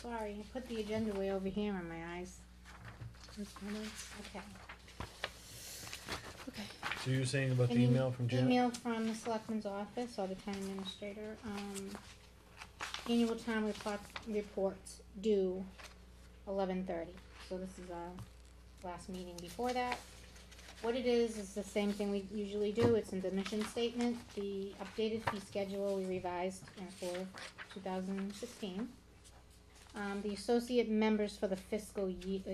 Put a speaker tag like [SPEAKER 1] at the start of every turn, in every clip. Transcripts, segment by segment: [SPEAKER 1] sorry, I put the agenda way over here in my eyes. Correspondence, okay. Okay.
[SPEAKER 2] So you were saying about the
[SPEAKER 1] Any
[SPEAKER 2] email from Janet?
[SPEAKER 1] Email from the selectman's office or the town administrator, um, annual town report, reports due eleven thirty. So this is our last meeting before that. What it is, is the same thing we usually do, it's in the mission statement, the updated fee schedule we revised uh, for two thousand sixteen. Um, the associate members for the fiscal year, uh,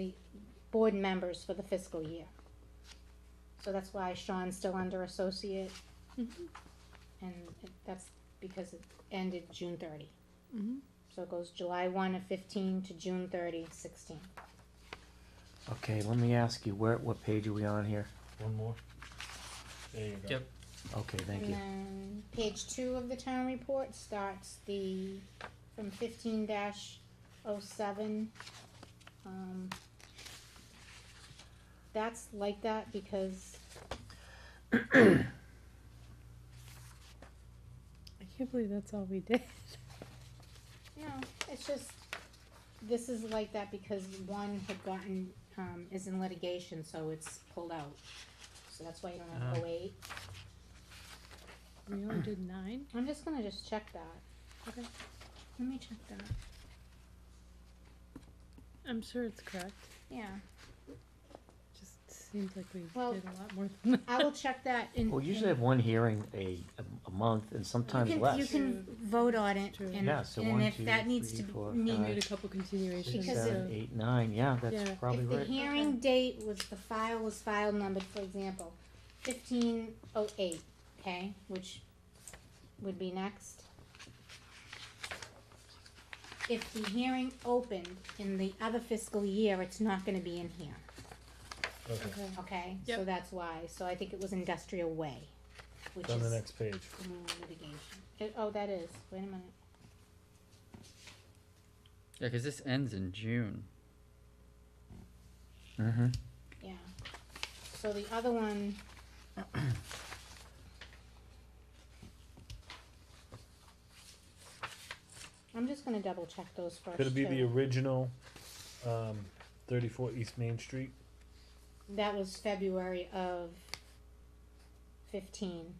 [SPEAKER 1] board members for the fiscal year. So that's why Sean's still under associate.
[SPEAKER 3] Mm-hmm.
[SPEAKER 1] And it- that's because it ended June thirty.
[SPEAKER 3] Mm-hmm.
[SPEAKER 1] So it goes July one of fifteen to June thirty sixteen.
[SPEAKER 4] Okay, let me ask you, where, what page are we on here?
[SPEAKER 2] One more. There you go.
[SPEAKER 5] Yep.
[SPEAKER 4] Okay, thank you.
[SPEAKER 1] And then page two of the town report starts the, from fifteen dash oh seven. Um, that's like that because
[SPEAKER 3] I can't believe that's all we did.
[SPEAKER 1] No, it's just, this is like that because one had gotten, um, is in litigation, so it's pulled out. So that's why you don't have oh to wait.
[SPEAKER 3] We only did nine.
[SPEAKER 1] I'm just gonna just check that.
[SPEAKER 3] Okay.
[SPEAKER 1] Let me check that.
[SPEAKER 3] I'm sure it's correct.
[SPEAKER 1] Yeah,
[SPEAKER 3] Just seems like we
[SPEAKER 1] Well,
[SPEAKER 3] did a lot more than that.
[SPEAKER 1] I will check that in.
[SPEAKER 4] Well, usually I
[SPEAKER 1] in-
[SPEAKER 4] have one hearing a, a- a month and
[SPEAKER 1] you
[SPEAKER 4] sometimes
[SPEAKER 1] can- You
[SPEAKER 4] less.
[SPEAKER 1] can vote on it
[SPEAKER 3] True.
[SPEAKER 1] and,
[SPEAKER 4] Yeah, so
[SPEAKER 1] and
[SPEAKER 4] one,
[SPEAKER 1] if
[SPEAKER 4] two,
[SPEAKER 1] that needs
[SPEAKER 4] three,
[SPEAKER 1] to be-
[SPEAKER 4] four,
[SPEAKER 1] need-
[SPEAKER 4] five,
[SPEAKER 3] We need a couple continuations.
[SPEAKER 4] Six,
[SPEAKER 1] Because
[SPEAKER 4] seven,
[SPEAKER 3] so-
[SPEAKER 4] eight, nine, yeah, that's
[SPEAKER 3] Yeah.
[SPEAKER 4] probably
[SPEAKER 1] If the
[SPEAKER 4] right.
[SPEAKER 1] hearing date was, the file was file numbered, for example, fifteen oh eight, okay, which would be next. If the hearing opened in the other fiscal year, it's not gonna be in here,
[SPEAKER 2] Okay.
[SPEAKER 3] Okay.
[SPEAKER 1] okay? So
[SPEAKER 3] Yep.
[SPEAKER 1] that's why, so I think it was industrial way, which
[SPEAKER 2] It's on the
[SPEAKER 1] is
[SPEAKER 2] next page.
[SPEAKER 1] litigation. It- Oh, that is, wait a minute,
[SPEAKER 5] Yeah, because this ends in June.
[SPEAKER 4] Mm-hmm.
[SPEAKER 1] yeah. So the other one. I'm just gonna double check those first
[SPEAKER 2] Could it be the
[SPEAKER 1] too.
[SPEAKER 2] original, um, thirty-four East Main Street?
[SPEAKER 1] That was February of fifteen,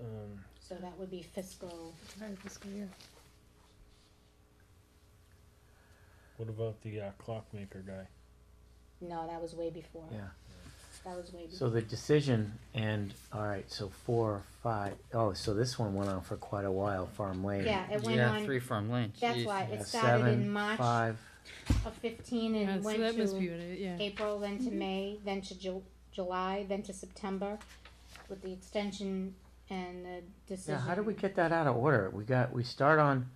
[SPEAKER 2] Um,
[SPEAKER 1] so that would be fiscal,
[SPEAKER 3] Entire fiscal year.
[SPEAKER 2] what about the uh, clockmaker guy?
[SPEAKER 1] no, that was way before,
[SPEAKER 4] Yeah,
[SPEAKER 1] that was way before.
[SPEAKER 4] so the decision and, all right, so four, five, oh, so this one went on for quite a while, Farm Lane.
[SPEAKER 1] Yeah, it went
[SPEAKER 5] yeah,
[SPEAKER 1] on,
[SPEAKER 5] three farm lane.
[SPEAKER 1] that's
[SPEAKER 5] Jeez.
[SPEAKER 1] why
[SPEAKER 4] Yeah,
[SPEAKER 1] it started in
[SPEAKER 4] seven,
[SPEAKER 1] March
[SPEAKER 4] Five,
[SPEAKER 1] of fifteen
[SPEAKER 3] Yeah,
[SPEAKER 1] and
[SPEAKER 3] so
[SPEAKER 1] went
[SPEAKER 3] that must be
[SPEAKER 1] to
[SPEAKER 3] what it, yeah.
[SPEAKER 1] April, then to May, then to Ju- July, then to September, with the extension and the decision.
[SPEAKER 4] yeah, how did we get that out of order? We got, we start on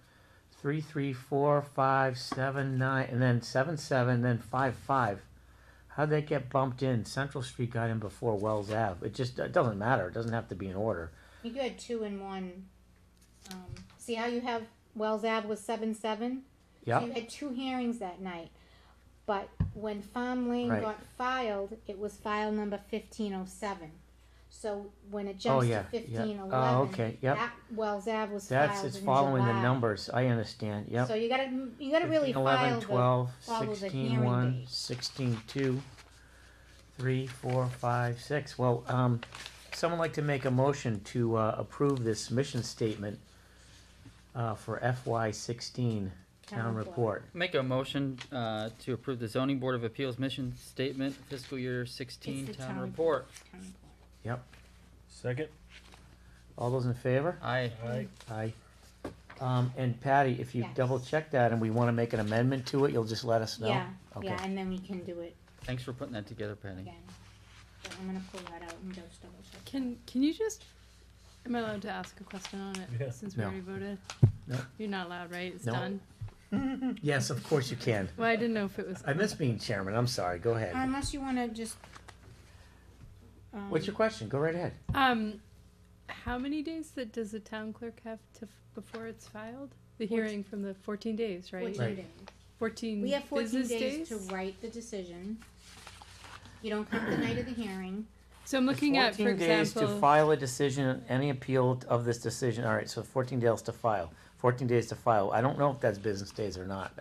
[SPEAKER 4] three, three, four, five, seven, nine, and then seven, seven, then five, five. How'd that get bumped in? Central Street got in before Wells Ave. It just, it doesn't matter. It doesn't have to be in order.
[SPEAKER 1] You had two in one. Um, see how you have Wells Ave was seven seven? So you
[SPEAKER 4] Yep,
[SPEAKER 1] had two hearings that night. But when Farm Lane
[SPEAKER 4] Right.
[SPEAKER 1] got filed, it was file number fifteen oh seven. So when it jumps
[SPEAKER 4] Oh, yeah,
[SPEAKER 1] to
[SPEAKER 4] yeah.
[SPEAKER 1] fifteen
[SPEAKER 4] Oh,
[SPEAKER 1] eleven,
[SPEAKER 4] okay, yep.
[SPEAKER 1] that Wells Ave was filed in
[SPEAKER 4] that's,
[SPEAKER 1] July.
[SPEAKER 4] it's following the numbers. I understand,
[SPEAKER 1] So
[SPEAKER 4] yep.
[SPEAKER 1] you gotta, you gotta really
[SPEAKER 4] 15, 11,
[SPEAKER 1] file the.
[SPEAKER 4] 12,
[SPEAKER 1] follow the
[SPEAKER 4] 16,
[SPEAKER 1] hearing
[SPEAKER 4] 1,
[SPEAKER 1] date.
[SPEAKER 4] 16, 2, 3, 4, 5, 6. Well, um, someone like to make a motion to, uh, approve this mission statement, uh, for FY sixteen town report.
[SPEAKER 5] Make a motion uh, to approve the zoning board of appeals mission statement fiscal year sixteen
[SPEAKER 1] It's the
[SPEAKER 5] town
[SPEAKER 1] town
[SPEAKER 5] report.
[SPEAKER 1] Town report.
[SPEAKER 4] Yep.
[SPEAKER 2] Second?
[SPEAKER 4] All those in favor?
[SPEAKER 5] Aye.
[SPEAKER 1] Mm-hmm.
[SPEAKER 2] Alright,
[SPEAKER 4] Aye. Um, and Patty, if you
[SPEAKER 1] Yes.
[SPEAKER 4] double check that and we wanna make an amendment to it, you'll just let us know?
[SPEAKER 1] Yeah, yeah,
[SPEAKER 4] Okay.
[SPEAKER 1] and then we can do it
[SPEAKER 5] Thanks for putting that together, Patty.
[SPEAKER 1] again. So I'm gonna pull that out and just double check.
[SPEAKER 3] Can, can you just, am I allowed to ask a question on it?
[SPEAKER 2] Yeah.
[SPEAKER 3] Since we
[SPEAKER 4] No.
[SPEAKER 3] already voted?
[SPEAKER 4] No.
[SPEAKER 3] You're not allowed, right? It's
[SPEAKER 4] No.
[SPEAKER 3] done?
[SPEAKER 4] Yes, of course you can.
[SPEAKER 3] Well, I didn't know if it was.
[SPEAKER 4] I miss being chairman, I'm sorry, go ahead.
[SPEAKER 1] uh, Unless you wanna just. um,
[SPEAKER 4] What's your question? Go right ahead.
[SPEAKER 3] Um, how many days that does the town clerk have to, f- before it's filed? The
[SPEAKER 1] Fourteen.
[SPEAKER 3] hearing from the fourteen days, right?
[SPEAKER 1] Fourteen
[SPEAKER 4] Right.
[SPEAKER 1] days.
[SPEAKER 3] Fourteen
[SPEAKER 1] We have fourteen
[SPEAKER 3] business
[SPEAKER 1] days
[SPEAKER 3] days?
[SPEAKER 1] to write the decision. You don't come the night of the hearing.
[SPEAKER 3] So I'm looking at, for
[SPEAKER 4] 14 days to
[SPEAKER 3] example,
[SPEAKER 4] file a decision, any appeal of this decision, all right, so fourteen days to file, fourteen days to file, I don't know if that's business days or not,